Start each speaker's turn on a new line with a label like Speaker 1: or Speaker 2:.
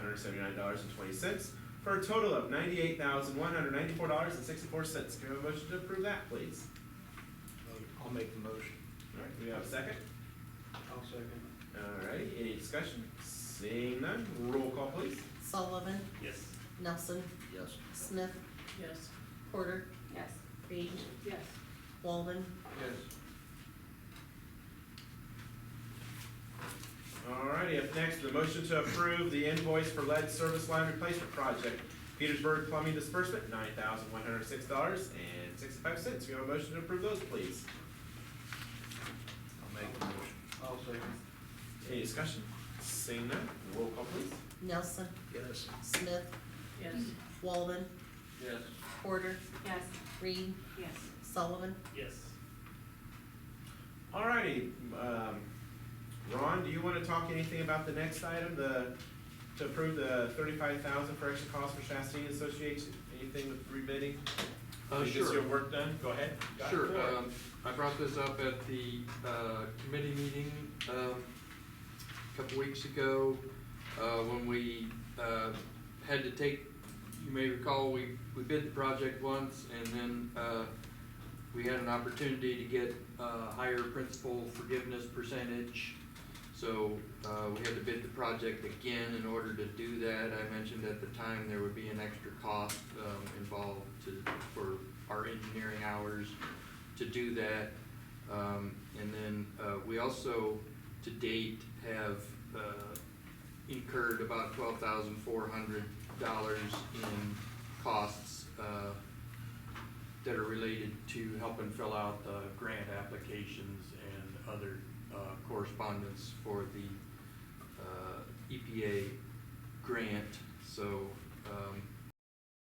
Speaker 1: hundred seventy-nine dollars and twenty cents, for a total of ninety-eight thousand, one hundred ninety-four dollars and sixty-four cents. Can we have a motion to approve that, please?
Speaker 2: I'll make the motion.
Speaker 1: All right, do we have a second?
Speaker 2: I'll second.
Speaker 1: All right, any discussion? Seeing none, roll call, please.
Speaker 3: Sullivan,
Speaker 4: Yes.
Speaker 3: Nelson,
Speaker 2: Yes.
Speaker 3: Smith,
Speaker 5: Yes.
Speaker 3: Porter,
Speaker 5: Yes.
Speaker 3: Page,
Speaker 5: Yes.
Speaker 3: Walden,
Speaker 2: Yes.
Speaker 1: Alrighty, up next, the motion to approve the invoice for lead service line replacement project, Petersburg Plumbing Disbursement, nine thousand one hundred six dollars and sixty-five cents. We have a motion to approve those, please.
Speaker 2: I'll make the motion. I'll second.
Speaker 1: Any discussion? Seeing none, roll call please.
Speaker 3: Nelson,
Speaker 2: Yes.
Speaker 3: Smith,
Speaker 5: Yes.
Speaker 3: Walden,
Speaker 2: Yes.
Speaker 3: Porter,
Speaker 5: Yes.
Speaker 3: Reed,
Speaker 5: Yes.
Speaker 3: Sullivan,
Speaker 4: Yes.
Speaker 1: Alrighty, um, Ron, do you wanna talk anything about the next item, the, to approve the thirty-five thousand for extra costs for Chastity Association? Anything with rebidding?
Speaker 6: Uh,
Speaker 1: Did you get
Speaker 6: sure.
Speaker 1: your work done? Go ahead. Got the
Speaker 6: Sure,
Speaker 1: floor.
Speaker 6: um, I brought this up at the, uh, committee meeting, um, a couple weeks ago, uh, when we, uh, had to take, you may recall, we, we bid the project once, and then, uh, we had an opportunity to get, uh, higher principal forgiveness percentage. So, uh, we had to bid the project again in order to do that. I mentioned at the time there would be an extra cost, um, involved to, for our engineering hours to do that. Um, and then, uh, we also, to date, have, uh, incurred about twelve thousand four hundred dollars in costs, uh, that are related to helping fill out the grant applications and other, uh, correspondence for E the, uh, EPA grant. So, um,